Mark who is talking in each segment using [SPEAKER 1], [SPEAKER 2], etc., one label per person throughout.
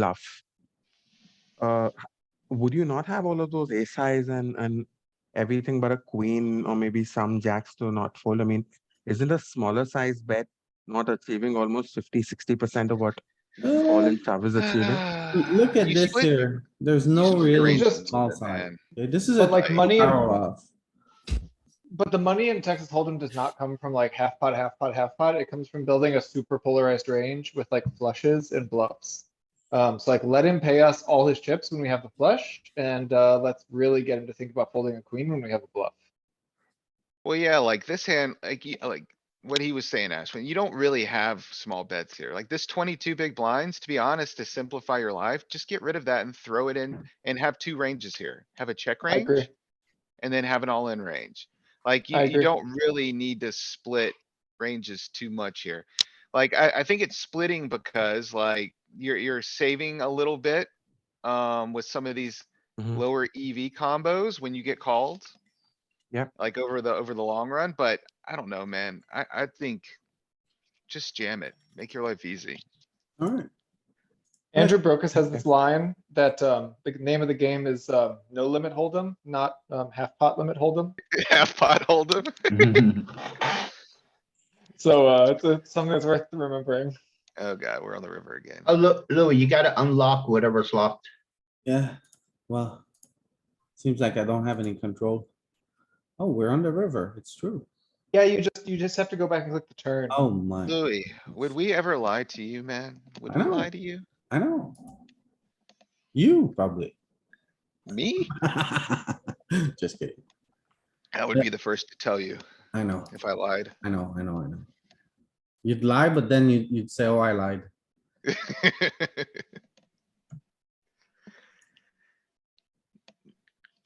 [SPEAKER 1] bluff. Uh, h- would you not have all of those ace highs and, and everything but a queen or maybe some jacks to not fold? I mean, isn't a smaller size bet not achieving almost 50, 60% of what all in shove is achieving?
[SPEAKER 2] L- Look at
[SPEAKER 3] Uh, You
[SPEAKER 2] this
[SPEAKER 3] split-
[SPEAKER 2] here. There's no
[SPEAKER 3] split
[SPEAKER 2] real
[SPEAKER 3] your ranges to
[SPEAKER 2] small
[SPEAKER 3] the
[SPEAKER 2] side.
[SPEAKER 3] man.
[SPEAKER 2] Yeah, This is a
[SPEAKER 4] But like
[SPEAKER 2] total
[SPEAKER 4] money and-
[SPEAKER 2] power off.
[SPEAKER 4] But the money in Texas Hold'em does not come from like half pot, half pot, half pot. It comes from building a super polarized range with like flushes and bluffs. Um, so like let him pay us all his chips when we have the flush and, uh, let's really get him to think about folding a queen when we have a bluff.
[SPEAKER 3] Well, yeah, like this hand, like, you- like what he was saying, Ashwin, you don't really have small bets here. Like this twenty-two big blinds, to be honest, to simplify your life, just get rid of that and throw it in and have two ranges here. Have a check
[SPEAKER 4] Hmm. I
[SPEAKER 3] range
[SPEAKER 4] agree.
[SPEAKER 3] and then have an all-in range. Like you,
[SPEAKER 4] I
[SPEAKER 3] you
[SPEAKER 4] agree.
[SPEAKER 3] don't really need to split ranges too much here. Like I, I think it's splitting because like you're, you're saving a little bit um, with some of these
[SPEAKER 1] Mhm.
[SPEAKER 3] lower EV combos when you get called.
[SPEAKER 1] Yep.
[SPEAKER 3] Like over the, over the long run, but I don't know, man. I, I think just jam it. Make your life easy.
[SPEAKER 2] Alright,
[SPEAKER 4] Andrew Brokus has this line that, um, the name of the game is, um, no limit Hold'em, not, um, half pot limit Hold'em.
[SPEAKER 3] Half pot hold 'em.
[SPEAKER 2] Mm-hmm.
[SPEAKER 4] So, uh, it's- it's something that's worth remembering.
[SPEAKER 3] Oh god, we're on the river again.
[SPEAKER 5] Oh, Lou, Louis, you gotta unlock whatever's locked.
[SPEAKER 2] yeah, well. Seems like I don't have any control. Oh, we're on the river. It's true.
[SPEAKER 4] Yeah, you just, you just have to go back and click the turn.
[SPEAKER 2] Oh my,
[SPEAKER 3] Louis, would we ever lie to you, man? Would
[SPEAKER 2] I
[SPEAKER 3] we
[SPEAKER 2] don't-
[SPEAKER 3] lie to you?
[SPEAKER 2] I know. You probably.
[SPEAKER 3] Me?
[SPEAKER 2] Just kidding.
[SPEAKER 3] I would
[SPEAKER 2] Yeah.
[SPEAKER 3] be the first to tell you
[SPEAKER 2] I know,
[SPEAKER 3] if I lied.
[SPEAKER 2] I know, I know, I know. You'd lie, but then you'd, you'd say, oh, I lied.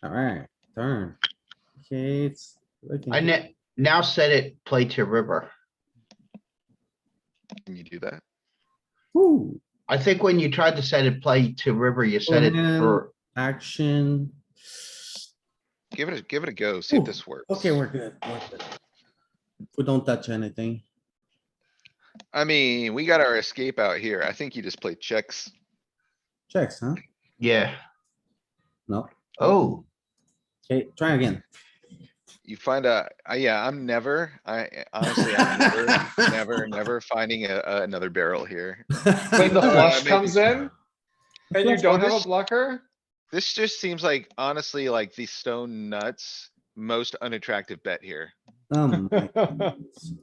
[SPEAKER 2] Alright, turn. Okay, it's. looking
[SPEAKER 5] I
[SPEAKER 2] good.
[SPEAKER 5] ne- now set it, play to river.
[SPEAKER 3] Can you do that?
[SPEAKER 2] Ooh,
[SPEAKER 5] I think when you tried to set it, play to river, you set it
[SPEAKER 2] man.
[SPEAKER 5] for,
[SPEAKER 2] action.
[SPEAKER 3] Give it, a give it a go. See if
[SPEAKER 2] Ooh,
[SPEAKER 3] this works.
[SPEAKER 2] Okay, we're good. we're good. We don't touch anything.
[SPEAKER 3] I mean, we got our escape out here. I think you just play checks.
[SPEAKER 2] Checks, huh?
[SPEAKER 5] yeah.
[SPEAKER 2] No.
[SPEAKER 5] Oh,
[SPEAKER 2] Okay, try again.
[SPEAKER 3] You find a, I- yeah, I'm never, I eh, honestly, I'm never, never, never finding a, a- another barrel here.
[SPEAKER 4] When the
[SPEAKER 3] Uh,
[SPEAKER 4] flush
[SPEAKER 3] maybe.
[SPEAKER 4] comes in and you
[SPEAKER 3] Flush
[SPEAKER 4] don't have a
[SPEAKER 3] bonus?
[SPEAKER 4] blocker,
[SPEAKER 3] This just seems like honestly, like the stone nuts, most unattractive bet here.
[SPEAKER 2] Um, my goodness.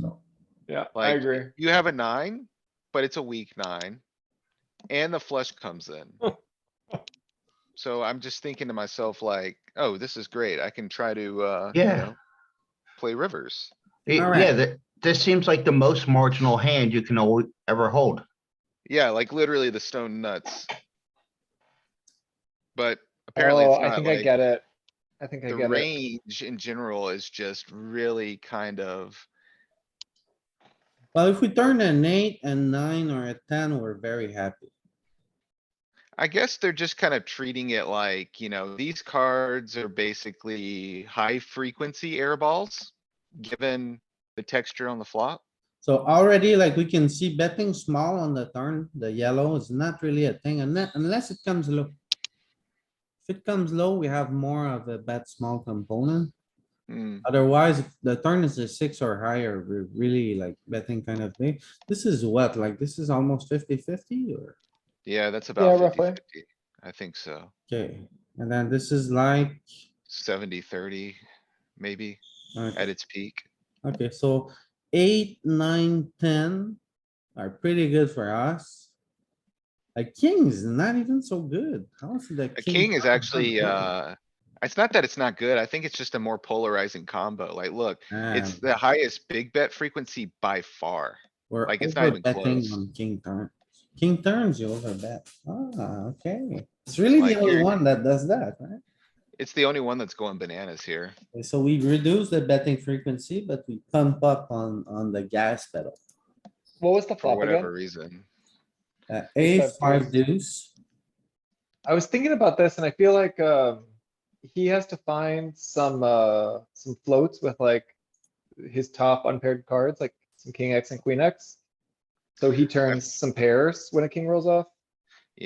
[SPEAKER 2] So,
[SPEAKER 4] yeah, I
[SPEAKER 3] Like,
[SPEAKER 4] agree.
[SPEAKER 3] You have a nine, but it's a weak nine. And the flush comes in. So I'm just thinking to myself like, oh, this is great. I can try to, uh, you
[SPEAKER 5] Yeah.
[SPEAKER 3] know, play rivers.
[SPEAKER 5] it-
[SPEAKER 2] All right.
[SPEAKER 5] yeah, that, this seems like the most marginal hand you can al- ever hold.
[SPEAKER 3] Yeah, like literally the stone nuts. But apparently it's
[SPEAKER 4] Oh, I
[SPEAKER 3] not
[SPEAKER 4] think I
[SPEAKER 3] like,
[SPEAKER 4] get it. I think I
[SPEAKER 3] the
[SPEAKER 4] get it.
[SPEAKER 3] range in general is just really kind of,
[SPEAKER 2] Well, if we turn an eight and nine or a ten, we're very happy.
[SPEAKER 3] I guess they're just kind of treating it like, you know, these cards are basically high frequency air balls. Given the texture on the flop.
[SPEAKER 2] So already like we can see betting small on the turn, the yellow is not really a thing unless, unless it comes low. If it comes low, we have more of a bet small component.
[SPEAKER 3] Hmm,
[SPEAKER 2] Otherwise, if the turn is a six or higher, we're really like betting kind of thing. This is what, like, this is almost 50-50 or?
[SPEAKER 3] yeah, that's
[SPEAKER 4] Yeah,
[SPEAKER 3] about fifty
[SPEAKER 4] roughly.
[SPEAKER 3] fifty. I think so.
[SPEAKER 2] Okay, and then this is like,
[SPEAKER 3] Seventy, thirty, maybe at
[SPEAKER 2] okay,
[SPEAKER 3] its peak.
[SPEAKER 2] okay, so eight, nine, ten are pretty good for us. A king is not even so good. How is the
[SPEAKER 3] A
[SPEAKER 2] king?
[SPEAKER 3] king is
[SPEAKER 2] not
[SPEAKER 3] actually,
[SPEAKER 2] good?
[SPEAKER 3] uh, it's not that it's not good. I think it's just a more polarizing combo. Like, look, it's
[SPEAKER 2] Ah,
[SPEAKER 3] the highest big bet frequency by far.
[SPEAKER 2] we're
[SPEAKER 3] like, it's not even
[SPEAKER 2] overbetting
[SPEAKER 3] close.
[SPEAKER 2] on King turn, king turns, you overbet. Ah, okay. It's really
[SPEAKER 3] Like,
[SPEAKER 2] the only
[SPEAKER 3] you're-
[SPEAKER 2] one that does that, right?
[SPEAKER 3] It's the only one that's going bananas here.
[SPEAKER 2] Okay, So we reduce the betting frequency, but we pump up on, on the gas pedal.
[SPEAKER 4] What was the
[SPEAKER 3] for
[SPEAKER 4] flop
[SPEAKER 3] whatever
[SPEAKER 4] again?
[SPEAKER 3] reason.
[SPEAKER 2] Uh, ace,
[SPEAKER 4] Except
[SPEAKER 2] five
[SPEAKER 4] for-
[SPEAKER 2] deuce.
[SPEAKER 4] I was thinking about this and I feel like, um, he has to find some, uh, some floats with like his top unpaired cards, like some king X and queen X. So he turns some pairs when a king rolls off.